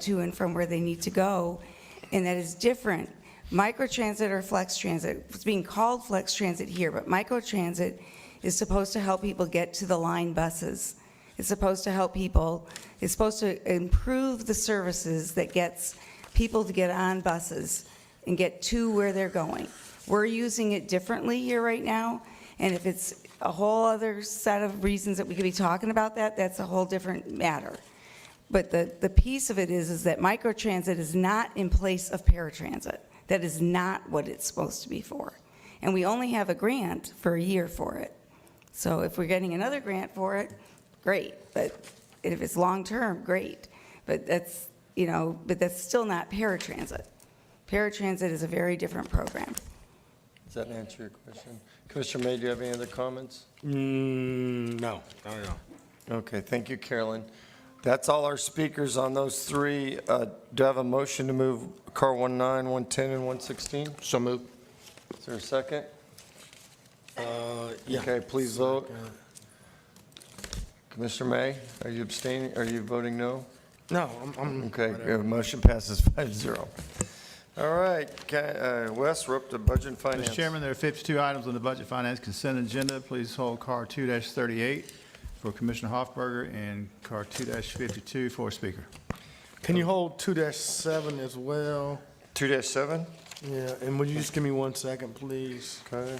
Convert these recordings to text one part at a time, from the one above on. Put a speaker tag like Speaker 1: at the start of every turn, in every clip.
Speaker 1: to and from where they need to go, and that is different. Microtransit or flex transit, it's being called flex transit here, but microtransit is supposed to help people get to the line buses. It's supposed to help people, it's supposed to improve the services that gets people to get on buses and get to where they're going. We're using it differently here right now, and if it's a whole other set of reasons that we could be talking about that, that's a whole different matter. But the, the piece of it is, is that microtransit is not in place of paratransit. That is not what it's supposed to be for. And we only have a grant for a year for it. So if we're getting another grant for it, great, but if it's long-term, great. But that's, you know, but that's still not paratransit. Paratransit is a very different program.
Speaker 2: Does that answer your question? Commissioner May, do you have any other comments?
Speaker 3: Mm, no, no, no.
Speaker 2: Okay, thank you, Carolyn. That's all our speakers on those three. Uh, Do I have a motion to move car 19, 110, and 116?
Speaker 3: So moved.
Speaker 2: Is there a second?
Speaker 3: Uh, yeah.
Speaker 2: Okay, please vote. Commissioner May, are you abstaining, are you voting no?
Speaker 3: No, I'm, I'm.
Speaker 2: Okay, uh, motion passes five zero. All right, ca- uh, Wes, we're up to budget and finance.
Speaker 4: Mr. Chairman, there are 52 items on the Budget Finance Consent Agenda. Please hold Car 2-38 for Commissioner Hoffberger and Car 2-52 for Speaker.
Speaker 3: Can you hold two dash seven as well?
Speaker 2: 2-7,
Speaker 3: Yeah, and would you just give me one second, please,
Speaker 2: okay,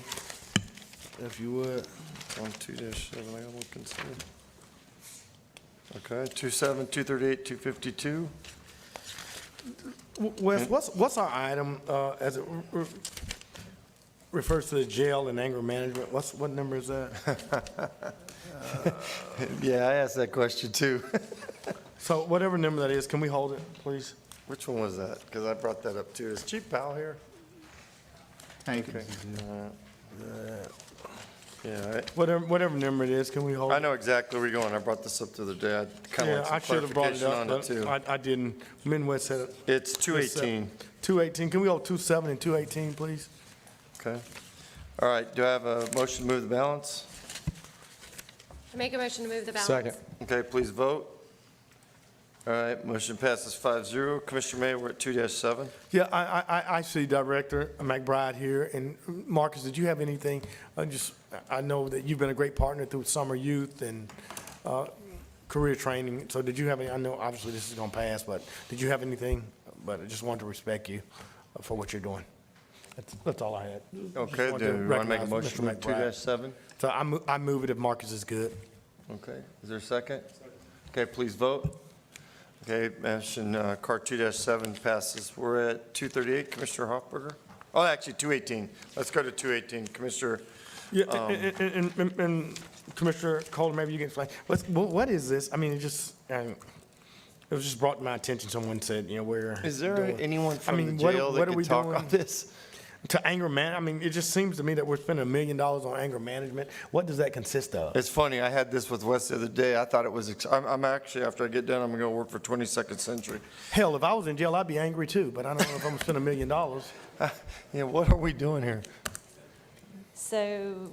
Speaker 3: if you would?
Speaker 2: on 2-7, I gotta look and see. Okay, 2-7, 238, 252.
Speaker 3: W- Wes, what's, what's our item, uh, as it re- re- refers to the jail and anger management? What's, what number is that?
Speaker 2: Yeah, I asked that question too.
Speaker 3: So whatever number that is, can we hold it, please?
Speaker 2: Which one was that? Because I brought that up too. Is Chief Powell here?
Speaker 4: Hankins.
Speaker 2: Yeah,
Speaker 3: Whatever, whatever number it is, can we hold
Speaker 2: I,
Speaker 3: it?
Speaker 2: I know exactly where you're going. I brought this up the other day. I kind of
Speaker 3: Yeah, I
Speaker 2: want some
Speaker 3: should have brought it
Speaker 2: clarification
Speaker 3: up,
Speaker 2: on it
Speaker 3: but
Speaker 2: too.
Speaker 3: I, I didn't. Midwest said it.
Speaker 2: It's 218,
Speaker 3: 218. Can we go 27 and 218, please?
Speaker 2: okay? All right, do I have a motion to move the balance?
Speaker 5: I Make a motion to move the balance.
Speaker 2: Okay, please vote. All right, motion passes 5-0. Commissioner May, we're at 2-7.
Speaker 3: Yeah, I, I- I, I see Director McBride here, and Marcus, did you have anything? I just, I know that you've been a great partner through summer youth and uh, career training, so did you have any, I know obviously this is gonna pass, but did you have anything? But I just wanted to respect you uh, for what you're doing. That's, that's all I had.
Speaker 2: Okay,
Speaker 3: wanted
Speaker 2: do
Speaker 3: to
Speaker 2: you want to make a
Speaker 3: recognize
Speaker 2: motion to
Speaker 3: Mr.
Speaker 2: move
Speaker 3: McBride.
Speaker 2: 2-7?
Speaker 3: So I move, I move it if Marcus is good.
Speaker 2: Okay, is there a second? Okay, please vote. Okay, motion, uh, car 2-7 passes. We're at 238, Commissioner Hofberger? Oh, actually, 218. Let's go to 218, Commissioner.
Speaker 3: Yeah,
Speaker 2: Um,
Speaker 3: and, and- and- and Commissioner Calder, maybe you can explain, what's, what what is this? I mean, it just, um, it was just brought to my attention, someone said, you know, we're. doing- I mean, what- what are we doing
Speaker 2: this?
Speaker 3: To anger man, I mean, it just seems to me that we're spending a million dollars on anger management. What does that consist of?
Speaker 2: It's funny, I had this with Wes the other day. I thought it was, ex- I'm, I'm actually, after I get done, I'm gonna go work for 22nd Century.
Speaker 3: Hell, if I was in jail, I'd be angry too, but I don't know if I'm gonna spend a million dollars.
Speaker 2: Yeah, what are we doing here?
Speaker 6: So,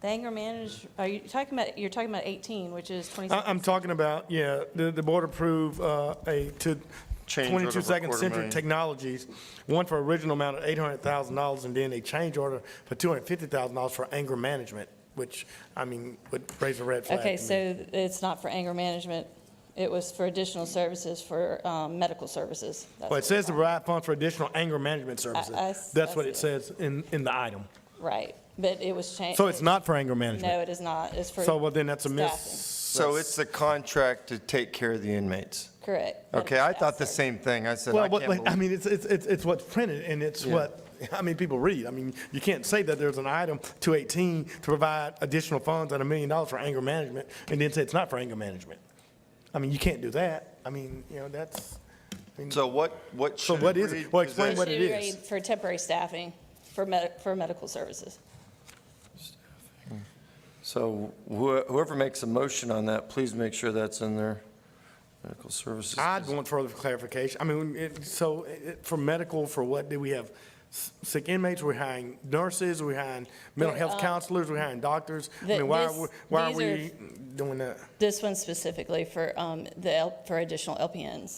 Speaker 6: the anger manage, are you talking about, you're talking about 18, which is 26?
Speaker 3: I, I'm talking about, yeah, the, the board approved, uh, a, to
Speaker 2: Change order for
Speaker 3: twenty-two second
Speaker 2: quarter
Speaker 3: century
Speaker 2: million.
Speaker 3: technologies, one for original amount of eight hundred thousand dollars, and then a change order for two hundred fifty thousand dollars for anger management, which, I mean, would raise a red flag. to
Speaker 6: Okay,
Speaker 3: me.
Speaker 6: so it's not for anger management, it was for additional services, for um, medical services.
Speaker 3: Well,
Speaker 6: That's what
Speaker 3: it says to
Speaker 6: it's
Speaker 3: provide funds for additional anger management
Speaker 6: I s-
Speaker 3: services.
Speaker 6: I
Speaker 3: That's what it
Speaker 6: see it.
Speaker 3: says in, in the item.
Speaker 6: on. Right, but it was changed.
Speaker 3: So it's not for anger management.
Speaker 6: No, it is not, it's for.
Speaker 3: So, well, then that's a
Speaker 6: staffing.
Speaker 3: miss.
Speaker 2: So it's the contract to take care of the inmates.
Speaker 6: Correct.
Speaker 2: Okay, I
Speaker 6: Medical
Speaker 2: thought the
Speaker 6: staff
Speaker 2: same thing. I said, I
Speaker 3: Well,
Speaker 2: can't
Speaker 3: but like, I
Speaker 2: believe-
Speaker 3: mean, it's, it's, it's it's what's printed and it's
Speaker 2: Yeah.
Speaker 3: what, I mean, people read. I mean, you can't say that there's an item, 218, to provide additional funds at a million dollars for anger management and then say it's not for anger management. I mean, you can't do that. I mean, you know, that's, I mean,
Speaker 2: So what, what
Speaker 3: So
Speaker 2: should
Speaker 3: what
Speaker 2: it
Speaker 3: is it?
Speaker 2: read?
Speaker 3: Well,
Speaker 2: Is
Speaker 3: explain
Speaker 2: that-
Speaker 6: services.
Speaker 3: what it
Speaker 6: Should
Speaker 3: is.
Speaker 6: read For temporary staffing, for med, for medical services.
Speaker 2: So wh- whoever makes a motion on that, please make sure that's in there. Medical services.
Speaker 3: I'd want further clarification. I mean, it, so it, for medical, for what, do we have s- sick inmates? We're hiring nurses, we're hiring mental
Speaker 6: There,
Speaker 3: health
Speaker 6: uh,
Speaker 3: counselors, we're hiring doctors. I
Speaker 6: the-
Speaker 3: mean, why are,
Speaker 6: this-
Speaker 3: we- why are
Speaker 6: these are-
Speaker 3: we doing that?
Speaker 6: This one specifically for, um, the, L- for additional LPNs.